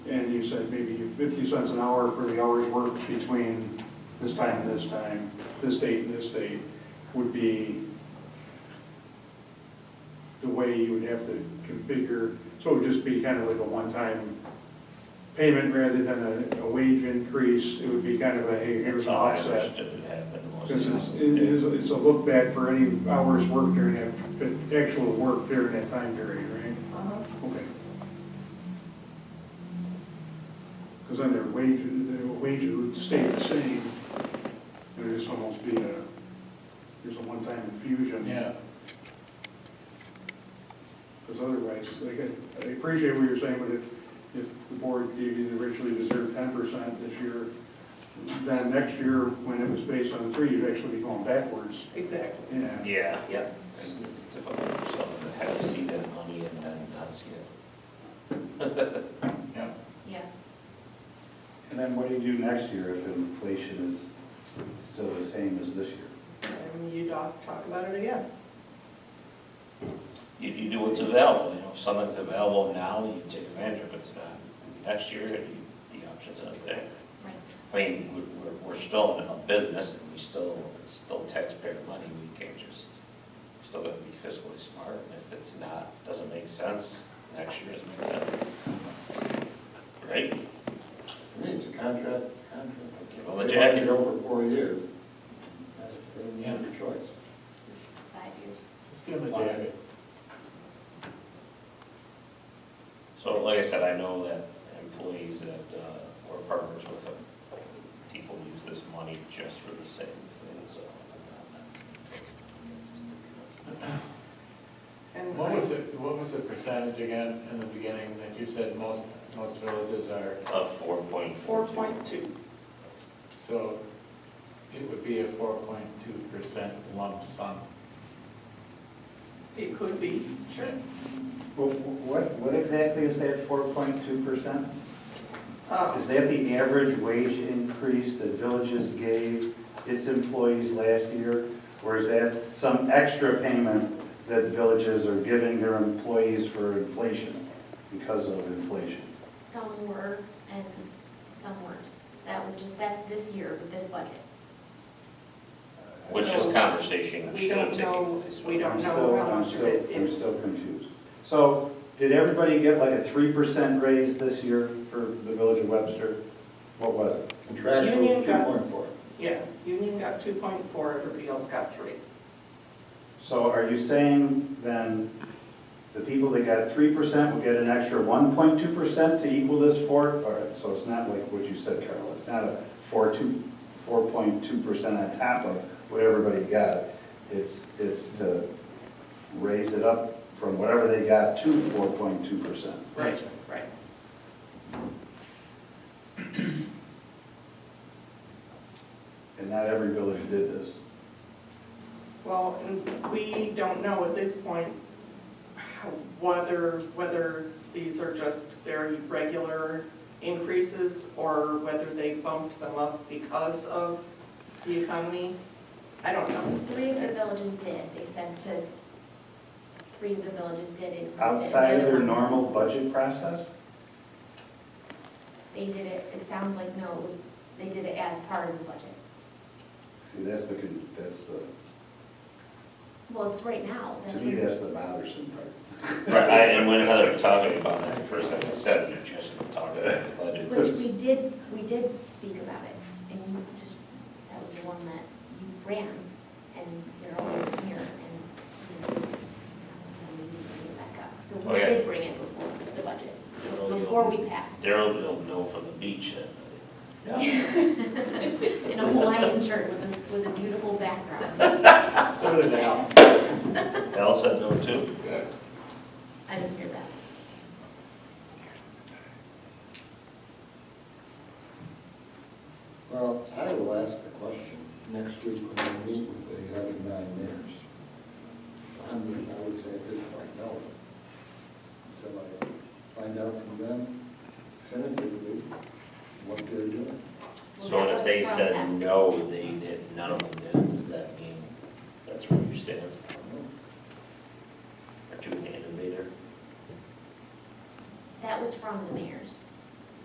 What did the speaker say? said maybe fifty cents an hour for the hours worked between this time and this time, this date and this date, would be the way you would have to configure, so it would just be kind of like a one-time payment rather than a, a wage increase, it would be kind of a, hey, here's That's an how I offset. understood it happened. was Because it's, it is, it's a look back for any hours worked during that, the actual work during that time period, right? Okay. Because then their wage, their wage would stay the same, there'd just almost be a, there's a one-time infusion. Yeah, Because otherwise, like, I- I appreciate what you're saying, but if, if the board gave you the richly deserved ten percent this year, then next year, when it was based on three, you'd actually be going backwards, Exactly. yeah. yeah. Yep. And It's difficult for someone to have to see that money and then not see it. Yeah. Yeah, And then what do you do next year if inflation is still the same as this year? And you talk, talk about it again. You, you do what's available, you know, if something's available now, you take advantage of it, it's not next year, you- the options aren't there. right. I mean, we're, we're- we're still in a business and we still, it's still taxpayer money, we can't just, we're still gotta be fiscally smart. And if it's not, doesn't make sense, next year doesn't make sense. Right? I mean, it's a contract, contract. Give them a They want jacket. it over four years. That's- They have a choice. Five years. Just give them a jacket. So like I said, I know that employees that, uh, we're partners with them, people use this money just for the same thing, so. I'm not- And What was it, what was the percentage again in the beginning that you said most, most villages are, Uh, four point four Four two. point two. so it would be a four point two percent lump sum. It could be. Sure. Well, What, what exactly is that four point two percent? Uh, Is that the average wage increase that villages gave its employees last year? Or is that some extra payment that villages are giving their employees for inflation, because of inflation? Some were and some weren't. That was just, that's this year with this budget. Which is conversation We should have don't taken know- place. we don't I'm know still- how I'm much of still- it I'm is. still confused. So, did everybody get like a three percent raise this year for the village of Webster? What was it? Contractual Union is two point four. yeah, union got two point four, everybody else got three. So are you saying then the people that got three percent will get an extra one point two percent to equal this four? All right, so it's not like what you said, Carol, it's not a four two, four point two percent on top of what everybody got. It's, it's to raise it up from whatever they got to four point two percent. Right. Right. And not every village did this. Well, and we don't know at this point how- whether, whether these are just their regular increases or whether they bumped them up because of the economy. I don't know. Three of the villages did, they said to, three of the villages did increase it. The Outside of other their ones, normal budget process? They did it, it sounds like, no, it was, they did it as part of the budget. See, that's the, con- that's the, Well, it's right now. that's to me, what- that's the bothersome part. Right, I- and when Heather talking about that, the first thing I said, you're just talking about the budget. Which we did, we did speak about it, and you just, that was the one that you ran, and you're always here, and you just, and we need to bring it back up. So we Okay. did bring it before the budget, Daryl, you'll- before we passed, Daryl will know from the beach that in a Hawaiian shirt with this, with a beautiful background. So did Al. Al said no too. I didn't hear that. Well, I will ask the question next week when we meet with the other nine mayors. I'm, I would say at this point, no. Until I find out from them definitively what they're doing. Well, So that if they was from said that- no, they did, none of them did, does that mean that's where you stand?